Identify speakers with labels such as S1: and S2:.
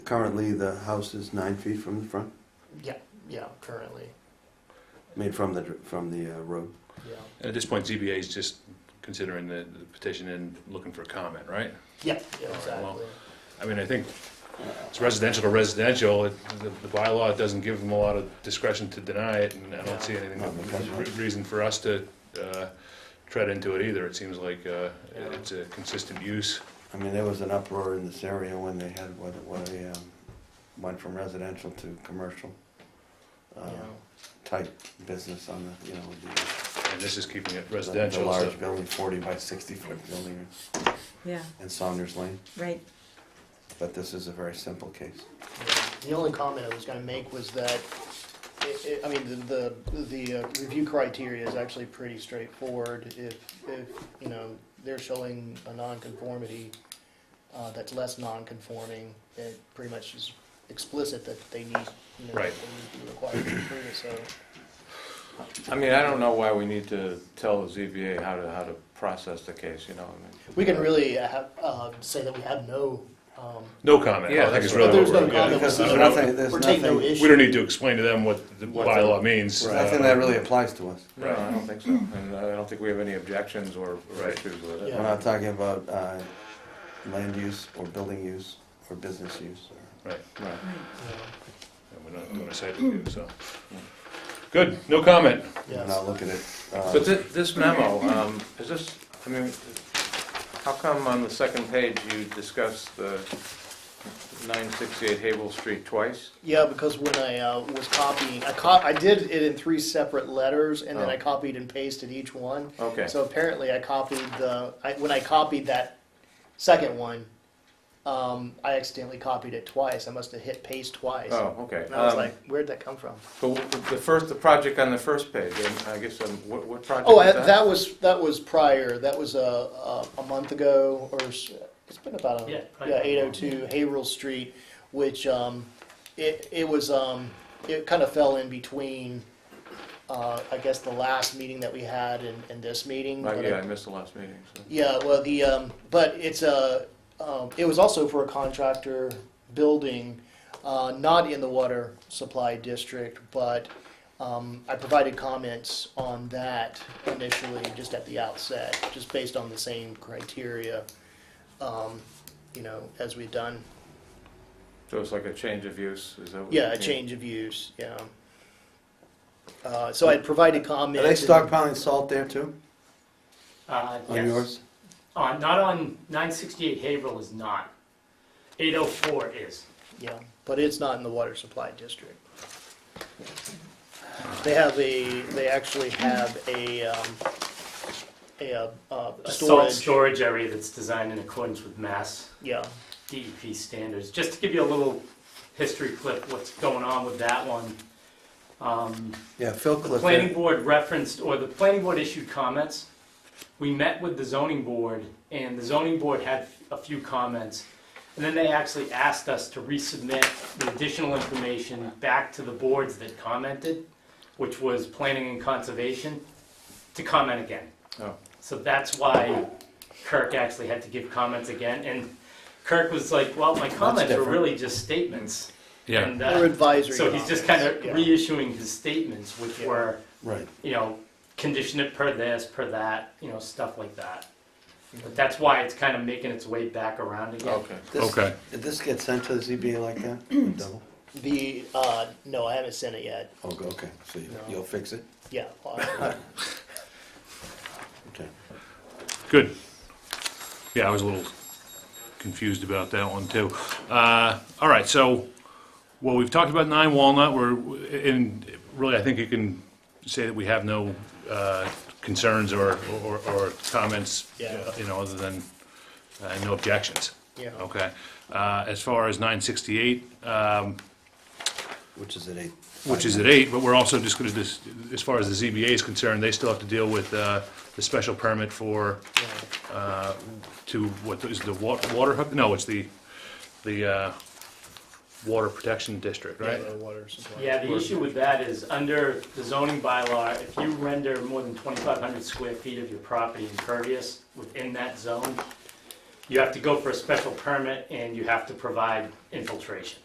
S1: currently the house is nine feet from the front,
S2: Yeah, yeah, currently,
S1: I mean, from the, dr- from the uh, road.
S2: yeah.
S3: At this point, ZBA is just considering the the petition and looking for comment, right?
S2: Yeah, yeah,
S3: well,
S2: exactly.
S3: I mean, I think it's residential to residential, It- the the bylaw doesn't give them a lot of discretion to deny it, and I don't see anything,
S1: No, that's right.
S3: re- reason for us to uh, tread into it either. It seems like uh,
S2: Yeah.
S3: it's a consistent use.
S1: I mean, there was an uproar in this area when they had, what, what a, um, went from residential to commercial, uh,
S2: Yeah.
S1: type business on the, you know, the-
S3: And this is keeping it
S1: the, the
S3: residential, so
S1: large building, forty by sixty foot building
S4: Yeah,
S1: in Saunders Lane,
S4: right.
S1: but this is a very simple case.
S2: The only comment I was gonna make was that, it, it, I mean, the, the, the uh, review criteria is actually pretty straightforward. If, if, you know, they're showing a nonconformity, uh, that's less nonconforming, it pretty much is explicit that they need, you know,
S3: Right.
S2: they would be required to approve it, so.
S5: I mean, I don't know why we need to tell the ZBA how to, how to process the case, you know, I
S2: We can really have, uh, say that we have no, um,
S3: no comment. I
S5: Yeah,
S3: think
S5: that's
S3: it's
S5: right.
S3: really
S2: there's
S3: what
S2: no
S3: we're- yeah.
S2: comment,
S1: Because
S2: we're
S1: there's
S2: not-
S1: nothing- there's
S2: we're taking no
S1: nothing-
S2: issue.
S3: We don't need to explain to them what the
S5: What
S3: bylaw means. Uh,
S1: I think that really applies to us.
S5: mean, no, I don't think so. And I don't think we have any objections or or
S3: Right.
S5: issues with
S1: We're
S5: it.
S2: Yeah.
S1: not talking about, uh, land use or building use or business use or.
S3: Right.
S5: Right.
S3: And we're not doing a site review, so. Good, no comment.
S2: Yeah,
S1: And
S2: yes.
S1: I'll look at it. uh,
S5: But thi- this memo, um, is this, I mean, how come on the second page you discuss the 968 Havel Street twice?
S2: Yeah, because when I uh, was copying, I co- I did it in three separate letters, and then I
S5: Oh.
S2: copied and pasted each one.
S5: Okay.
S2: So apparently, I copied the I, when I copied that second one, um, I accidentally copied it twice. I must have hit paste twice,
S5: Oh, okay.
S2: and I was
S5: Um,
S2: like, "Where'd that come from?"
S5: But w- the first, the project on the first page, and I guess, um, what what project
S2: Oh, I,
S5: was that?
S2: that was that was prior. That was a a, a month ago, or s- it's been about a,
S6: Yeah,
S2: yeah,
S6: probably about a
S2: eight oh two Haverhill Street, which um, it it was um, it kind of fell in between. Uh, I guess the last meeting that we had and, and this meeting.
S5: Like,
S2: but
S5: Uh, Yeah,
S2: I-
S5: I missed the last meeting, so.
S2: yeah, well, the, um, but it's a, um, it was also for a contractor building, uh, not in the water supply district, but, um, I provided comments on that initially, just at the outset, just based on the same criteria, um, you know, as we've done.
S5: So it's like a change of use, is that? what you
S2: Yeah, a
S5: mean?
S2: change of use, yeah. Uh, so I provided
S1: Are
S2: comments.
S1: they
S2: and-
S1: stockpiling salt there too,
S6: Uh,
S1: on
S6: yes.
S1: yours?
S6: Uh, not on, nine sixty-eight Haverhill is not. Eight oh four is.
S2: Yeah, but it's not in the water supply district. They have a, they actually have a, um, a, uh, uh,
S6: A salt
S2: storage,
S6: storage area that's designed in accordance with mass
S2: yeah,
S6: DEP standards. Just to give you a little history clip, what's going on with that one. Um,
S1: Yeah, Phil
S6: The planning
S1: Clifford.
S6: board referenced, or the planning board issued comments. We met with the zoning board, and the zoning board had a few comments. And then they actually asked us to resubmit the additional information back to the boards that commented, which was planning and conservation, to comment again.
S5: Oh.
S6: So that's why Kirk actually had to give comments again, and Kirk was like, well, my comments were
S1: different.
S6: really just statements.
S3: Yeah,
S6: And, uh,
S2: or advisory.
S6: So he's just kind of
S2: comments, yeah.
S6: reissuing his statements, which
S2: Yeah.
S6: were
S1: Right.
S6: you know, condition it per this, per that, you know, stuff like that. But that's why it's kind of making its way back around again.
S5: Okay.
S1: This-
S3: Okay.
S1: Did this get sent to the ZBA like that? Double?
S2: The, uh, no, I haven't sent it yet,
S1: Oh, go- okay, so you-
S2: No.
S1: you'll fix it?
S2: yeah. uh,
S1: Okay.
S3: good. Yeah, I was a little confused about that one too. Uh, all right, so, well, we've talked about nine Walnut, we're, and really, I think you can say that we have no, uh, concerns or, or, or comments,
S2: Yeah.
S3: you know, other than, uh, no objections.
S2: Yeah.
S3: Okay, uh, as far as nine sixty-eight, um,
S1: Which is at eight?
S3: which is at eight, but we're also just gonna, dis- as far as the ZBA is concerned, they still have to deal with, uh, the special permit for,
S2: yeah.
S3: uh, to, what is the wa- water hook? No, it's the, the, uh, water protection district, right?
S2: Yeah, the water supply.
S6: Yeah, the issue with that is, under the zoning bylaw, if you render more than 2,500 square feet of your property impervious within that zone, you have to go for a special permit and you have to provide infiltration.